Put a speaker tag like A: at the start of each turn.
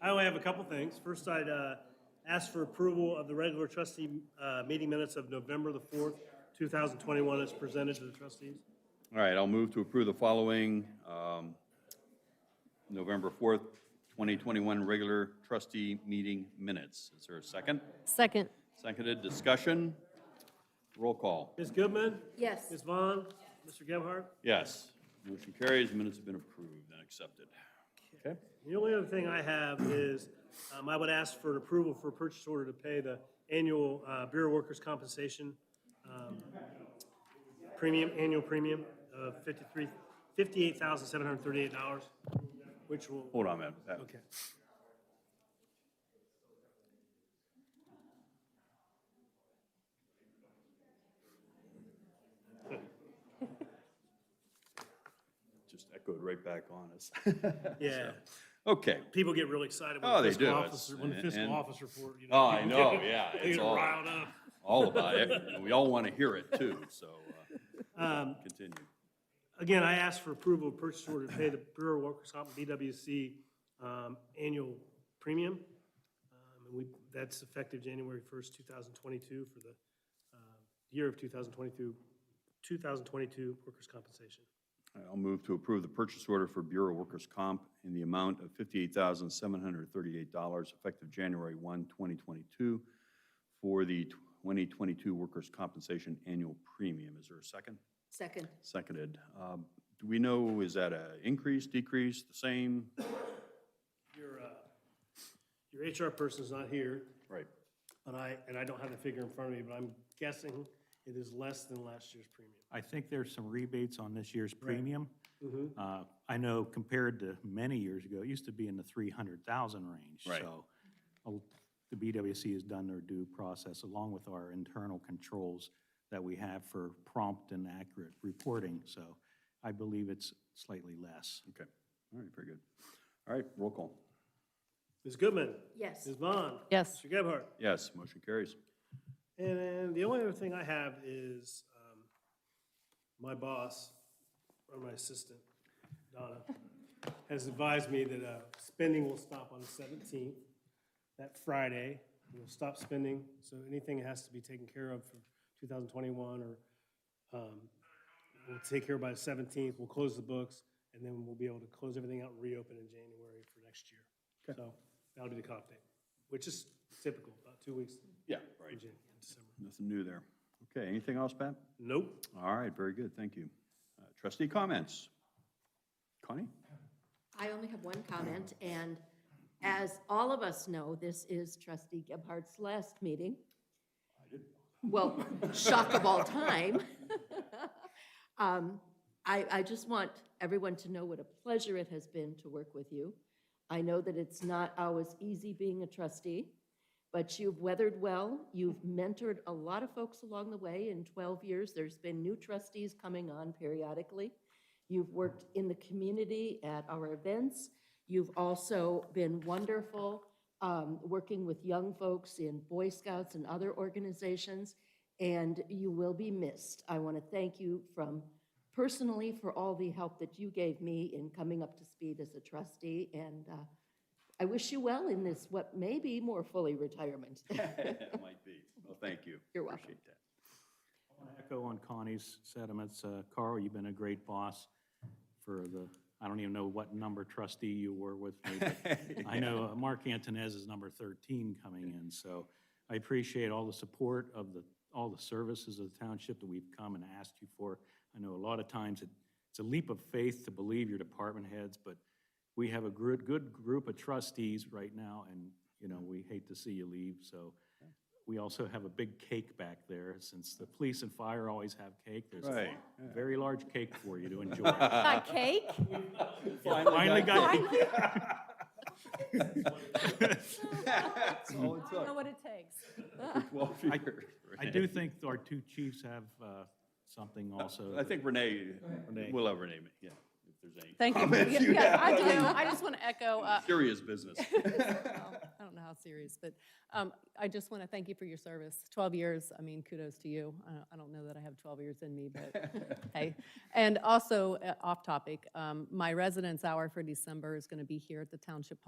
A: I only have a couple things. First, I'd uh, ask for approval of the regular trustee uh, meeting minutes of November the 4th, 2021, as presented to the trustees.
B: All right, I'll move to approve the following um, November 4th, 2021 regular trustee meeting minutes. Is there a second?
C: Second.
B: Seconded, discussion? Roll call.
A: Ms. Goodman?
C: Yes.
A: Ms. Vaughn? Mr. Gebhardt?
B: Yes. Motion carries, minutes have been approved and accepted. Okay.
A: The only other thing I have is, um, I would ask for an approval for a purchase order to pay the annual, uh, Bureau Workers' Compensation, um, premium, annual premium of fifty-three, fifty-eight thousand, seven hundred and thirty-eight dollars, which will,
B: Hold on, man. Pat.
A: okay.
B: Just echoed right back on us.
A: Yeah,
B: Okay.
A: people get really excited when
B: Oh,
A: the
B: they
A: fiscal
B: do.
A: officer, when the
B: It's-
A: fiscal
B: and-
A: officer report, you know.
B: Oh, I
A: people
B: know,
A: get-
B: yeah,
A: They
B: it's
A: get
B: all-
A: riled up.
B: All about it. and We all want to hear it too, so uh, continue.
A: Again, I asked for approval of purchase order to pay the Bureau of Workers' Comp, BWC, um, annual premium. Um, And we, that's effective January 1st, 2022 for the uh, year of 2022, 2022 workers' compensation.
B: I'll move to approve the purchase order for Bureau Workers' Comp in the amount of $58,738 effective January 1, 2022 for the 2022 Workers' Compensation Annual Premium. Is there a second?
C: Second.
B: Seconded. Um, Do we know, is that a increase, decrease, the same?
A: Your, uh, your HR person's not here,
B: Right.
A: but I, and I don't have the figure in front of me, but I'm guessing it is less than last year's premium.
D: I think there's some rebates on this year's premium.
B: Mm-hmm.
D: Uh, I know compared to many years ago, it used to be in the 300,000 range.
B: Right.
D: So uh, the BWC has done their due process along with our internal controls that we have for prompt and accurate reporting. So I believe it's slightly less.
B: Okay. All right, very good. All right, roll call.
A: Ms. Goodman?
C: Yes.
A: Ms. Vaughn?
C: Yes.
A: Mr. Gebhardt?
B: Yes, motion carries.
A: And then the only other thing I have is um, my boss, or my assistant, Donna, has advised me that uh, spending will stop on the 17th, that Friday. We'll stop spending, so anything that has to be taken care of for 2021 or um, we'll take care of by the 17th. We'll close the books, and then we'll be able to close everything out and reopen in January for next year. So that'll be the comp date, which is typical, about two weeks
B: Yeah, right.
A: in Jan- in December.
B: Nothing new there. Okay, anything else, Pat?
A: Nope.
B: All right, very good, thank you. Uh, Trustee comments? Connie?
C: I only have one comment, and as all of us know, this is trustee Gebhardt's last meeting. Well, shock of all time. Um, I, I just want everyone to know what a pleasure it has been to work with you. I know that it's not always easy being a trustee, but you've weathered well. You've mentored a lot of folks along the way. In 12 years, there's been new trustees coming on periodically. You've worked in the community at our events. You've also been wonderful um, working with young folks in Boy Scouts and other organizations, and you will be missed. I want to thank you from personally for all the help that you gave me in coming up to speed as a trustee, and uh, I wish you well in this, what may be more fully retirement.
B: It might be. Well, thank you.
C: You're welcome.
B: Appreciate that.
D: Echo on Connie's sentiments. Uh, Carl, you've been a great boss for the, I don't even know what number trustee you were with me. but I know uh, Mark Antonez is number 13 coming in, so I appreciate all the support of the, all the services of the township that we've come and asked you for. I know a lot of times it, it's a leap of faith to believe your department heads, but we have a good, good group of trustees right now, and, you know, we hate to see you leave, so. We also have a big cake back there, since the police and fire always have cake. There's a
B: Right.
D: very large cake for you to enjoy.
E: Got cake?
D: Finally got
E: Finally.
B: That's all it
E: I don't know
B: took.
E: what it takes.
B: for 12
D: I-
B: years.
D: I do think our two chiefs have uh, something also.
B: I think Renee,
D: Renee.
B: we'll have Renee, ma- yeah, if there's any.
E: Thank you.
B: Comments
E: Yeah,
B: you
E: yeah, I
B: have.
E: do. I just want to echo, uh,
B: Serious business.
E: well, I don't know how serious, but um, I just want to thank you for your service. 12 years, I mean, kudos to you. I don't- I don't know that I have 12 years in me, but hey. And also, uh, off topic, um, my residence hour for December is going to be here at the Township